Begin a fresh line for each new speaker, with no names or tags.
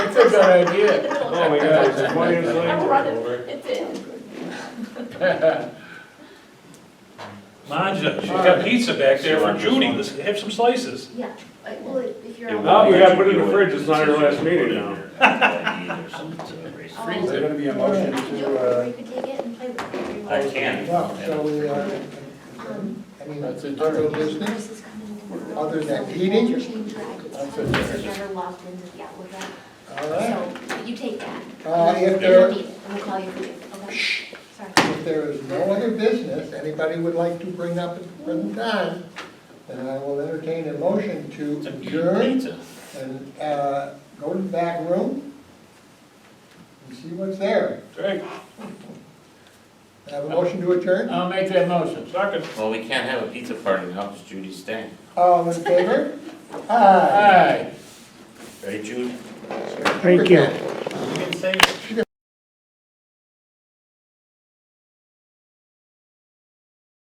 a good idea.
Oh my God, it's twenty years
I'm running,
later.
it's in.
Manja, she's got pizza back there for Judy, have some slices.
Yeah, I- well, if you're. on-
No, you gotta put it in the fridge, it's not your last meeting now.
Oh,
Is there
I
gonna be a
I
motion
can do
to,
it, or
uh,
you can take it and play with it. if you
I
want.
can.
Well, so we, uh,
Um,
I mean,
That's it.
other business,
Chris is coming in tomorrow,
Other than
so we
eating?
won't change your items.
That's
So
it.
this is better locked into the outlook app.
all right.
So you take that.
Uh, if
And we'll
there,
need it, and we'll call you for it, okay? Sorry.
if there is no other business anybody would like to bring up at the present time, then I will entertain a motion to adjourn
Pizza.
and, uh, go to the back room and see what's there.
Greg,
Have a
Uh,
motion to adjourn?
I'll make that motion.
second.
Well, we can't have a pizza party now, because Judy's staying.
All in favor? Aye.
Aye.
Right, Judy?
Thank you.